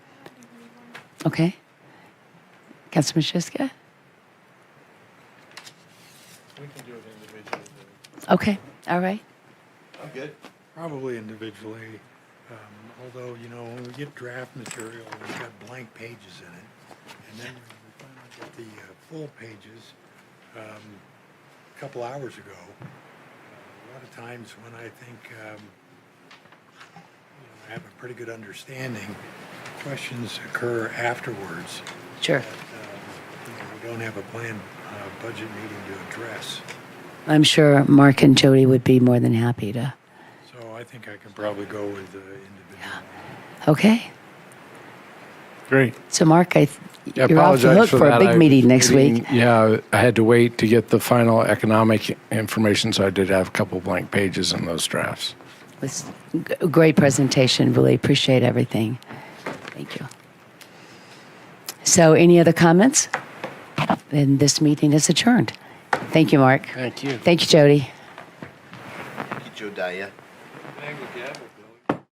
Okay. Councilman Shiska? We can do it individually. Okay, all right. I'm good. Probably individually, um, although, you know, when we get draft material, we've got blank pages in it. And then when we finally get the uh, full pages, um, a couple hours ago, uh, a lot of times when I think, um, you know, I have a pretty good understanding, questions occur afterwards. Sure. that, um, you know, We don't have a planned, uh, budget meeting to address. I'm sure Mark and Jody would be more than happy to. So I think I can probably go with, uh, individual. Okay. Great. So, Mark, I, th- I you're off the apologize hook for for a that. big I- meeting next week. Yeah, I had to wait to get the final economic information, so I did have a couple blank pages in those drafts. It was a great presentation. Really appreciate everything. Thank you. So, any other comments? Then this meeting is adjourned. Thank you, Mark. Thank you. Thank you, Jody. Jodiah. Thank you,